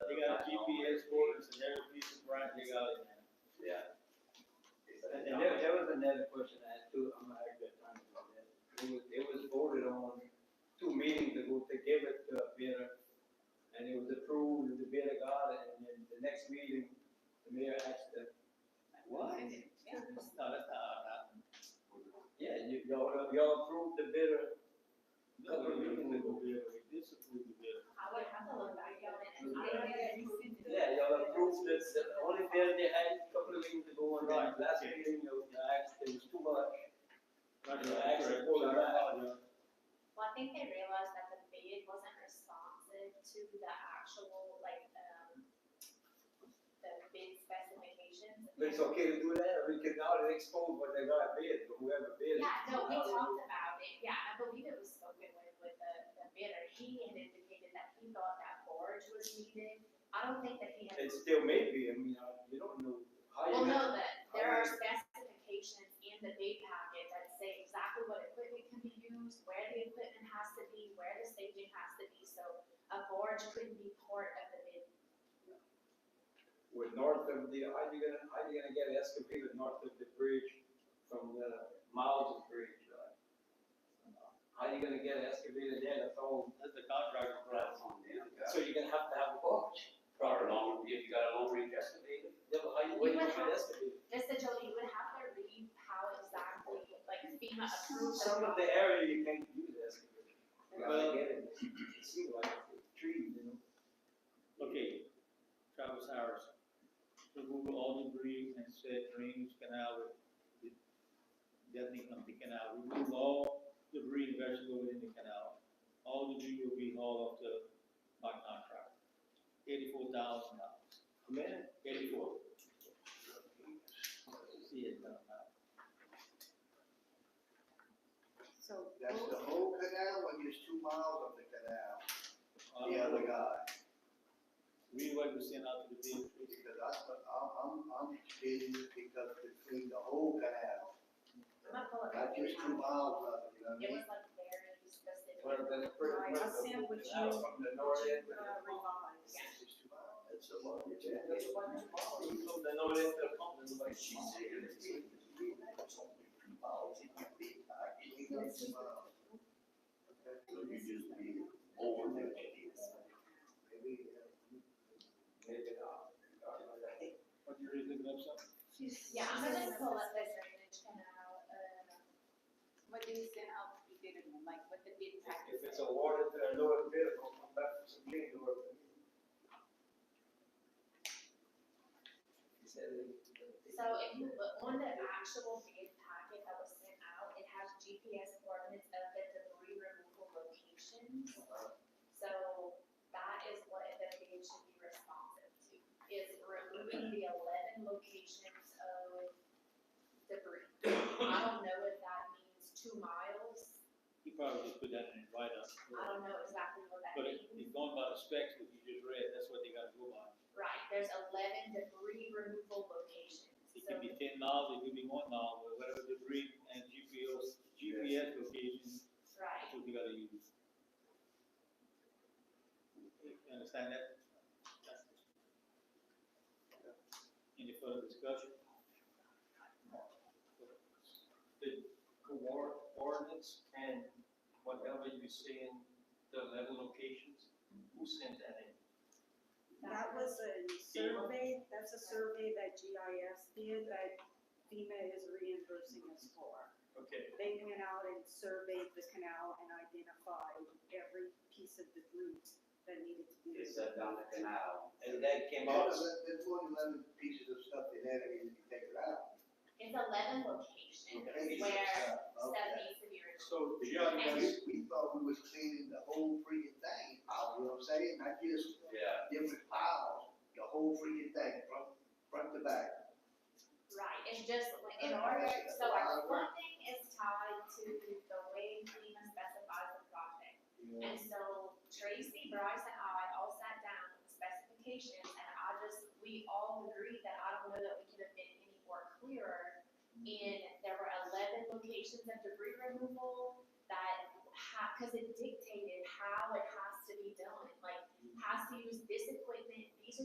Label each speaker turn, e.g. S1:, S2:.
S1: instance, that only there they had a couple of things to go on, right, last meeting, there was the axe, there was too much. Right, the axe, and all of that.
S2: Well, I think they realized that the bid wasn't responsive to the actual, like, um, the bid specifications.
S1: But it's okay to do that, or we can now expose what they got bid, or whoever bid. it.
S2: Yeah, no, we talked about it, yeah, I believe it was spoken with, with the, the bidder, he had indicated that he thought that forge was needed. I don't think that he had.
S1: It still may be, I mean, uh, you don't know. how you
S2: Well,
S1: know.
S2: no, that there are specifications in the bid packet that say exactly what equipment can be used, where the equipment has to be, where the staging has to be, so a forge couldn't be part of the bid.
S1: With north of the, how you gonna, how you gonna get an excavator north of the bridge from the Miles Bridge? uh, How you gonna get an excavator there, that's all,
S3: That's the contractor price on them.
S1: so you're gonna have to have a box.
S3: Proper long, if you got a long range excavator,
S1: Yeah, but how you
S2: You
S1: waiting
S2: would
S1: for an
S2: have-
S1: excavator?
S2: Just that Jolie, you would have to read how exactly, like FEMA approves.
S1: Some of the area you can't use excavator. You gotta
S3: Well-
S1: get it, it seems like a tree, you know?
S4: Okay, Travis Harris, remove all debris and said drains canal with deadening of the canal, remove all debris and vegetable within the canal. All debris will be hauled off the, by contractor, eighty-four thousand dollars,
S1: A minute?
S4: eighty-four. See it now, now.
S2: So.
S5: That's the whole canal, and there's two miles of the canal,
S4: Uh,
S5: the other guy,
S4: Read what we sent out to the bid,
S5: because I, I'm, I'm, I'm kidding, because between the whole canal,
S2: I'm not pulling
S5: not
S2: up.
S5: just two miles of it, you know what I
S2: It
S5: mean?
S2: was like very specific.
S1: Well, then it's pretty
S6: Right,
S1: much
S6: I
S1: the-
S6: sent what
S1: the house From the north end.
S2: Uh,
S1: to the-
S5: It's just two miles.
S1: That's a lot.
S5: Yeah.
S1: That's one tomorrow, you come to north end of the pump, it's like.
S5: She said, it's two miles, it might be, I can even go two miles. Okay, so you just be over there. Maybe, uh,
S1: Maybe not.
S4: what you read the website?
S2: Yeah, I'm gonna just pull up this drainage canal, uh,
S6: What do you send out to be given, like what the bid package?
S1: If it's awarded to a lower bidder, we'll come back to some bid or. He said it.
S2: So if you look on the actual bid packet that was sent out, it has GPS coordinates of the debris removal locations. So that is what the bid should be responsive to, is removing the eleven locations of debris. I don't know if that means two miles,
S4: He probably just put that in his write-up.
S2: I don't know exactly what that
S4: But it,
S2: means.
S4: it's going by the specs that you just read, that's what they gotta go by.
S2: Right, there's eleven debris removal locations,
S4: It
S2: so.
S4: could be ten miles, it could be one mile, but whatever debris and GPS, GPS locations,
S2: Right,
S4: that's what you gotta use. You Understand that? Any further discussion?
S1: The coor- coordinates and whatever you say in the eleven locations, who sent that in?
S6: That was a survey, that's a survey that GIS did that FEMA is reimbursing us for.
S1: Okay,
S6: They went out and surveyed the canal and identified every piece of the route that needed to be.
S3: they set down the canal.
S1: and that came
S5: Well,
S1: out,
S5: there's, there's more than eleven pieces of stuff they had, and you take it out.
S2: it's eleven locations
S5: Okay. uh,
S2: where
S5: Okay.
S2: stuff needs to be removed.
S1: so
S2: GIS
S1: GIS,
S5: We, we thought we was cleaning the whole freaking thing, out, you know what I'm saying, not just
S3: Yeah.
S5: different piles, the whole freaking thing, from front to back.
S2: Right, and just like in order, so our funding is tied to the way FEMA specifies the project. And so Tracy, Bryce, and I all sat down with the specifications, and I just, we all agreed that I don't know that we could have been any more clearer. And there were eleven locations of debris removal that ha, cause it dictated how it has to be done, like, has to use this equipment